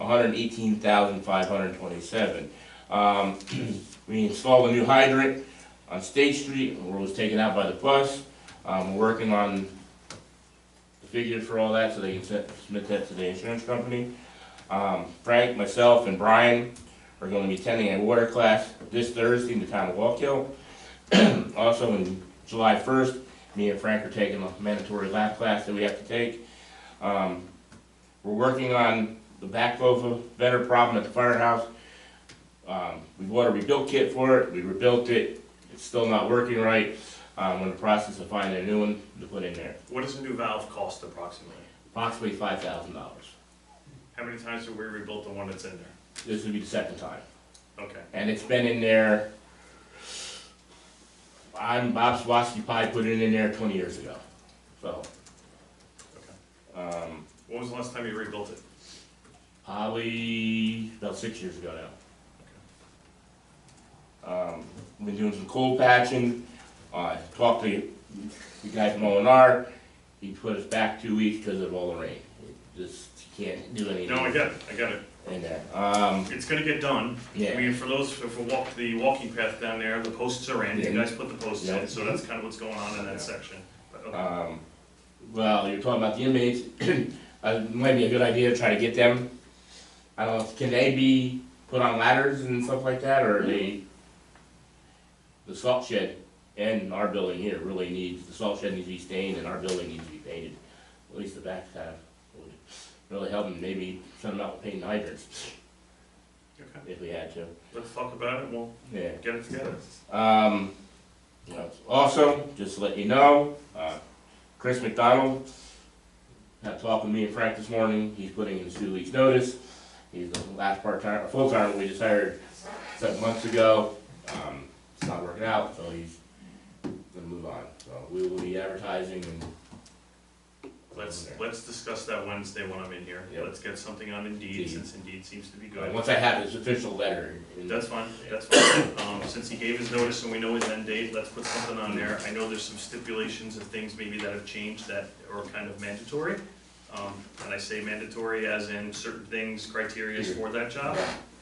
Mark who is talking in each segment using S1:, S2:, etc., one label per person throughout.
S1: hundred and eighteen thousand five hundred and twenty-seven. Um, we installed a new hydrant on State Street, where it was taken out by the bus. Um, we're working on the figures for all that, so they can set- submit that to the insurance company. Um, Frank, myself, and Brian are gonna be attending a water class this Thursday in the town of Wallkill. Also, on July first, me and Frank are taking a mandatory lab class that we have to take. Um, we're working on the backflow vendor problem at the firehouse. Um, we bought a rebuild kit for it, we rebuilt it, it's still not working right. Um, we're in the process of finding a new one to put in there,
S2: What does a new valve cost approximately?
S1: approximately five thousand dollars.
S2: How many times have we rebuilt the one that's in there?
S1: This would be the second time.
S2: Okay.
S1: and it's been in there. I'm Bob Swasky probably put it in there twenty years ago, so. Um,
S2: When was the last time you rebuilt it?
S1: probably about six years ago now. Um, been doing some coal patching, I talked to the guy from O and R, he put us back two weeks because of all the rain. Just can't do
S2: No, I
S1: anything
S2: get it, I get it.
S1: in there, um,
S2: It's gonna get done. I
S1: yeah,
S2: mean, for those, for walk, the walking path down there, the posts are in, you
S1: Yeah.
S2: guys put the posts
S1: Yeah.
S2: in, so that's kind of what's going on in that section. But, okay.
S1: Um, well, you're talking about the inmates, uh, it might be a good idea to try to get them, I don't know, can they be put on ladders and stuff like that, or they? The salt shed and our building here really needs, the salt shed needs to be stained and our building needs to be painted, at least the back half would really help them, maybe send them out with paint hydrants,
S2: Okay,
S1: if we had to,
S2: let's talk about it, we'll
S1: yeah.
S2: get it together.
S1: Um, you know, also, just to let you know, uh, Chris McDonald had talked with me and Frank this morning. He's putting in his two weeks' notice. He's the last part-time, or full-time we just hired seven months ago. Um, it's not working out, so he's gonna move on. So we will be advertising and.
S2: Let's, let's discuss that Wednesday when I'm in here.
S1: Yep.
S2: Let's get something on Indeed,
S1: Indeed.
S2: since Indeed seems to be
S1: Uh,
S2: good.
S1: Once I have his official letter. in-
S2: That's fine, that's fine. Um, since he gave his notice and we know his end date, let's put something on there. I know there's some stipulations and things maybe that have changed that are kind of mandatory. Um, and I say mandatory as in certain things, criterias for that job.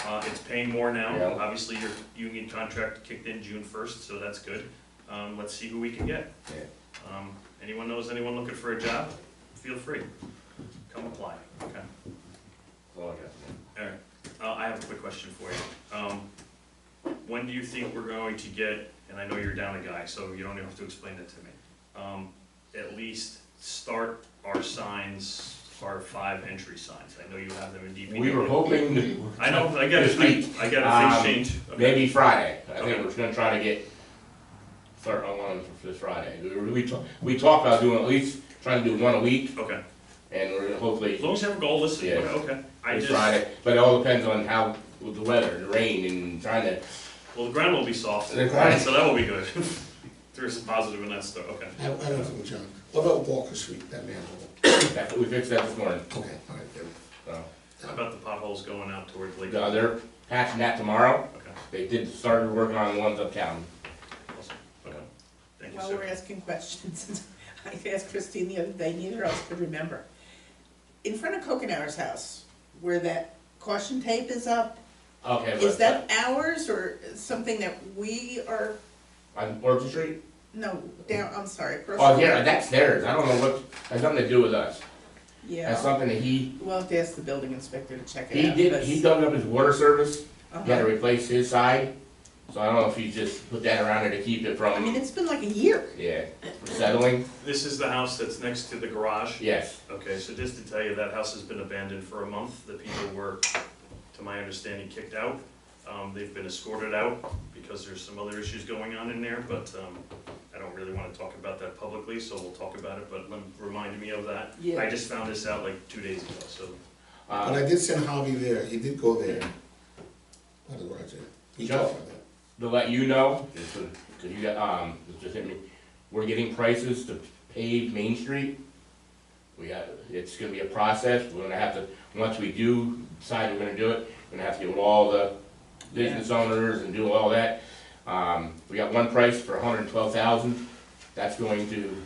S2: Uh, it's paying more now.
S1: Yeah.
S2: Obviously, your union contract kicked in June first, so that's good. Um, let's see who we can get.
S1: Yeah.
S2: Um, anyone knows anyone looking for a job, feel free. Come apply, okay?
S1: That's all I got.
S2: Alright, uh, I have a quick question for you. Um, when do you think we're going to get, and I know you're down a guy, so you don't even have to explain it to me. Um, at least start our signs, our five entry signs. I know you have them in DPW.
S1: We were hoping to.
S2: I know, I get it,
S1: This week.
S2: I, I get it,
S1: Um,
S2: things change. Okay.
S1: Maybe Friday. I
S2: Okay.
S1: think we're gonna try to get, start on one for this Friday. We, we talked, we talked about doing at least, trying to do one a week,
S2: Okay,
S1: and we're gonna
S2: as
S1: hopefully
S2: long as you have a goal, listen,
S1: Yeah.
S2: okay, I
S1: this
S2: just,
S1: Friday. But it all depends on how, with the weather, the rain, and trying to,
S2: well, the ground will be soft,
S1: The ground-
S2: so that will be good. There's a positive in that stuff, okay.
S3: I don't, I don't think, John, what about Walker Street, that manhole?
S1: that- we fixed that this morning.
S3: Okay, all right, there.
S1: So,
S2: How about the potholes going out towards Lake?
S1: uh, they're patching that tomorrow.
S2: Okay,
S1: They did, started working on the ones uptown.
S2: awesome, okay, thank you,
S4: While we're
S2: sir.
S4: asking questions, I asked Christine the other day, neither of us could remember. In front of Coconour's house, where that caution tape is up,
S1: Okay,
S4: is
S1: but,
S4: that ours or something that we are,
S1: on Orchard Street?
S4: no, down, I'm sorry, across.
S1: Oh,
S4: the-
S1: yeah, that's theirs. I don't know what, has nothing to do with us. That's
S4: Yeah,
S1: something that he,
S4: we'll have to ask the building inspector to check it
S1: he
S4: out.
S1: did,
S4: but-
S1: he dug up his water service.
S4: Uh-huh.
S1: He had to replace his side, so I don't know if you just put that around it to keep it
S4: I mean,
S1: from,
S4: it's been like a year.
S1: yeah, settling,
S2: This is the house that's next to the garage.
S1: yes.
S2: Okay, so just to tell you, that house has been abandoned for a month. The people were, to my understanding, kicked out. Um, they've been escorted out because there's some other issues going on in there, but, um, I don't really wanna talk about that publicly, so we'll talk about it, but lem- remind me of that.
S4: Yeah.
S2: I just found this out like two days ago, so,
S3: But
S1: Uh,
S3: I did send Javi there, he did go there. By the garage, there. he
S1: Joe?
S3: talked about that.
S1: to let you know, just to- cause you got, um, it just hit me, we're getting prices to pave Main Street. We got, it's gonna be a process, we're gonna have to, once we do decide we're gonna do it, we're gonna have to get with all the business owners and do all that. Um, we got one price for hundred and twelve thousand, that's going to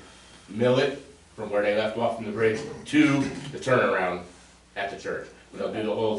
S1: mill it from where they left off from the bridge to the turnaround at the church. They'll do the whole